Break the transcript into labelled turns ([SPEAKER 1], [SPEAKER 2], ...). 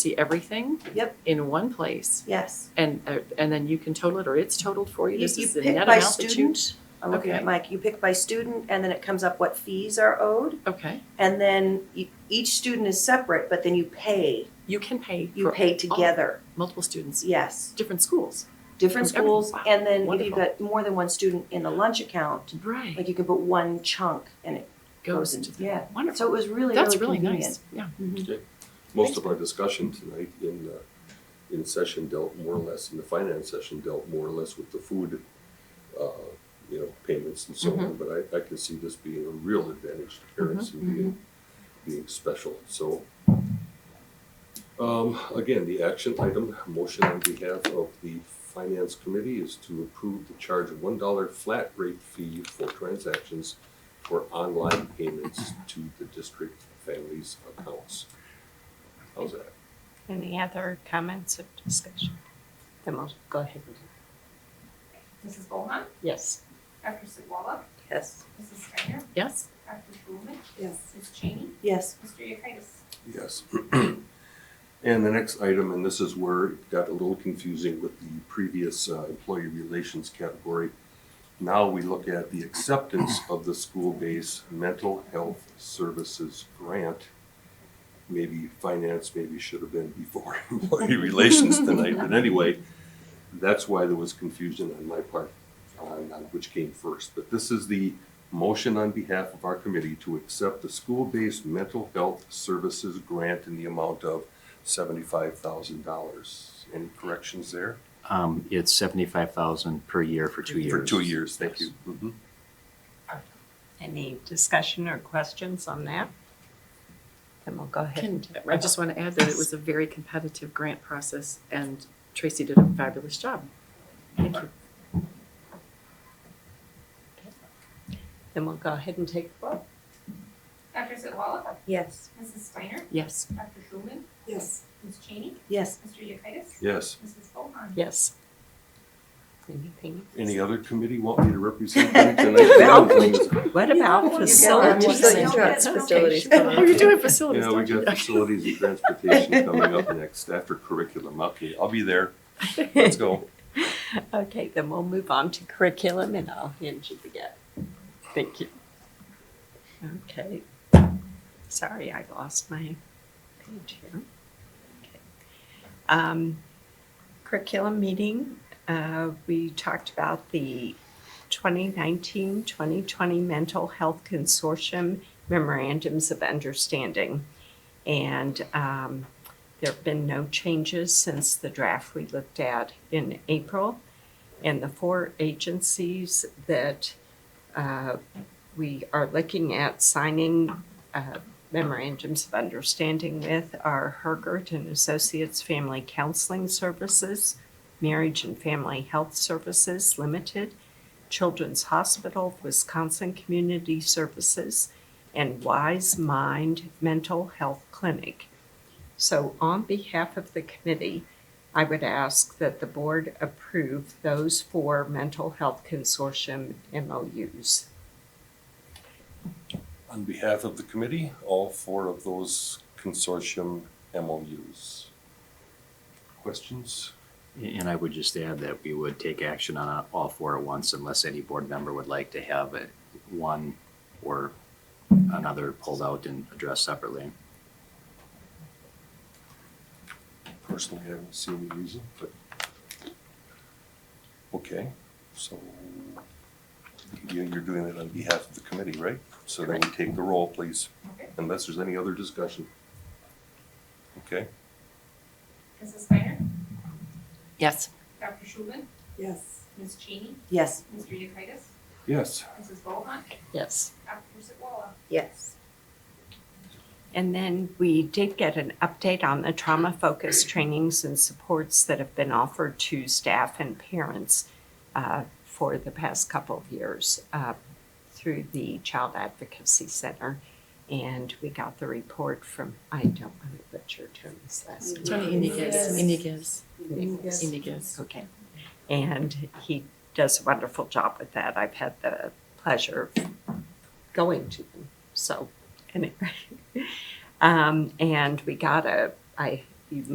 [SPEAKER 1] see everything.
[SPEAKER 2] Yep.
[SPEAKER 1] In one place,
[SPEAKER 2] Yes.
[SPEAKER 1] and, uh, and then you can total it, or it's totaled for you,
[SPEAKER 2] You
[SPEAKER 1] this
[SPEAKER 2] you
[SPEAKER 1] is the
[SPEAKER 2] pick
[SPEAKER 1] net
[SPEAKER 2] by
[SPEAKER 1] amount that you.
[SPEAKER 2] student. I'm looking
[SPEAKER 1] Okay.
[SPEAKER 2] at Mike. You pick by student and then it comes up what fees are owed.
[SPEAKER 1] Okay,
[SPEAKER 2] And then you- each student is separate, but then you pay,
[SPEAKER 1] you can pay
[SPEAKER 2] you
[SPEAKER 1] for
[SPEAKER 2] pay together.
[SPEAKER 1] multiple students,
[SPEAKER 2] Yes.
[SPEAKER 1] different schools.
[SPEAKER 2] Different
[SPEAKER 1] From every-
[SPEAKER 2] schools.
[SPEAKER 1] wow,
[SPEAKER 2] And then if you've
[SPEAKER 1] wonderful.
[SPEAKER 2] got more than one student in the lunch account,
[SPEAKER 1] Right.
[SPEAKER 2] like you can put one chunk and it
[SPEAKER 1] Goes
[SPEAKER 2] goes
[SPEAKER 1] into,
[SPEAKER 2] into,
[SPEAKER 1] the-
[SPEAKER 2] yeah. So
[SPEAKER 1] wonderful,
[SPEAKER 2] it was really,
[SPEAKER 1] that's
[SPEAKER 2] really
[SPEAKER 1] really nice,
[SPEAKER 2] convenient.
[SPEAKER 1] yeah.
[SPEAKER 3] Most of our discussion tonight in, uh, in session dealt more or less, in the finance session dealt more or less with the food, uh, you know, payments and so on, but I, I can see this being a real advantage to parents and being, being special, so. Um, again, the action item, motion on behalf of the finance committee is to approve the charge of one dollar flat rate fee for transactions for online payments to the district families' accounts. How's that?
[SPEAKER 4] Any other comments or discussion? The most, go ahead.
[SPEAKER 5] Mrs. Bohan?
[SPEAKER 4] Yes.
[SPEAKER 5] Dr. Sitwalla?
[SPEAKER 2] Yes.
[SPEAKER 5] Mrs. Steiner?
[SPEAKER 1] Yes,
[SPEAKER 5] Dr. Schulman?
[SPEAKER 2] Yes.
[SPEAKER 5] Ms. Chaney?
[SPEAKER 2] Yes.
[SPEAKER 5] Mr. Yekitis?
[SPEAKER 3] Yes. And the next item, and this is where it got a little confusing with the previous uh, employee relations category. Now we look at the acceptance of the school-based mental health services grant. Maybe finance, maybe should have been before employee relations tonight, but anyway, that's why there was confusion on my part uh, on on which came first. But this is the Motion on behalf of our committee to accept the school-based mental health services grant in the amount of seventy-five thousand dollars. Any corrections there?
[SPEAKER 6] Um, it's seventy-five thousand per year for two years.
[SPEAKER 3] For two years, thank you. Mhm.
[SPEAKER 4] Any discussion or questions on that? Then we'll go ahead.
[SPEAKER 1] can,
[SPEAKER 4] and
[SPEAKER 1] I just want to add that it was a very competitive grant process, and Tracy did a fabulous job. Thank you.
[SPEAKER 4] Then we'll go ahead and take a vote.
[SPEAKER 5] Dr. Sitwalla?
[SPEAKER 2] Yes.
[SPEAKER 5] Mrs. Steiner?
[SPEAKER 1] Yes.
[SPEAKER 5] Dr. Schulman?
[SPEAKER 2] Yes.
[SPEAKER 5] Ms. Chaney?
[SPEAKER 2] Yes.
[SPEAKER 5] Mr. Yekitis?
[SPEAKER 3] Yes.
[SPEAKER 5] Mrs. Bohan?
[SPEAKER 4] Yes. Anything?
[SPEAKER 3] Any other committee want me to represent them tonight?
[SPEAKER 4] Well, What about
[SPEAKER 2] facilities?
[SPEAKER 4] facilities?
[SPEAKER 2] Trucks, facilities.
[SPEAKER 1] Oh, you're doing facilities,
[SPEAKER 3] Yeah, we
[SPEAKER 1] don't you?
[SPEAKER 3] got facilities and transportation coming up next after curriculum. Okay, I'll be there. Let's go.
[SPEAKER 4] Okay, then we'll move on to curriculum and I'll hand you the get. Thank you. Okay. Sorry, I lost my page here. Okay. Um, Curriculum meeting, uh, we talked about the 2019-2020 Mental Health Consortium memorandums of understanding. And um, there have been no changes since the draft we looked at in April. And the four agencies that uh, we are looking at signing uh, memorandums of understanding with are Hergert and Associates Family Counseling Services, Marriage and Family Health Services Limited, Children's Hospital of Wisconsin Community Services, and Wise Mind Mental Health Clinic. So on behalf of the committee, I would ask that the board approve those four mental health consortium MOUs.
[SPEAKER 3] On behalf of the committee, all four of those consortium MOUs. Questions?
[SPEAKER 6] And I would just add that we would take action on all four at once unless any board member would like to have it, one or another pulled out and addressed separately.
[SPEAKER 3] Personally, I haven't seen the reason, but, okay, so you- you're doing it on behalf of the committee, right? So then we take the roll, please,
[SPEAKER 5] Okay.
[SPEAKER 3] unless there's any other discussion. Okay,
[SPEAKER 5] Mrs. Steiner?
[SPEAKER 1] Yes.
[SPEAKER 5] Dr. Schulman?
[SPEAKER 2] Yes.
[SPEAKER 5] Ms. Chaney?
[SPEAKER 2] Yes.
[SPEAKER 5] Mr. Yekitis?
[SPEAKER 3] yes,
[SPEAKER 5] Mrs. Bohan?
[SPEAKER 4] Yes.
[SPEAKER 5] Dr. Sitwalla?
[SPEAKER 2] Yes.
[SPEAKER 4] And then we did get an update on the trauma focused trainings and supports that have been offered to staff and parents uh, for the past couple of years uh, through the Child Advocacy Center. And we got the report from, I don't want to butcher Tony's last name.
[SPEAKER 1] Tony Iniguez, Iniguez, Iniguez.
[SPEAKER 4] Okay. And he does a wonderful job with that. I've had the pleasure of going to them. So, anyway. Um, and we got a, I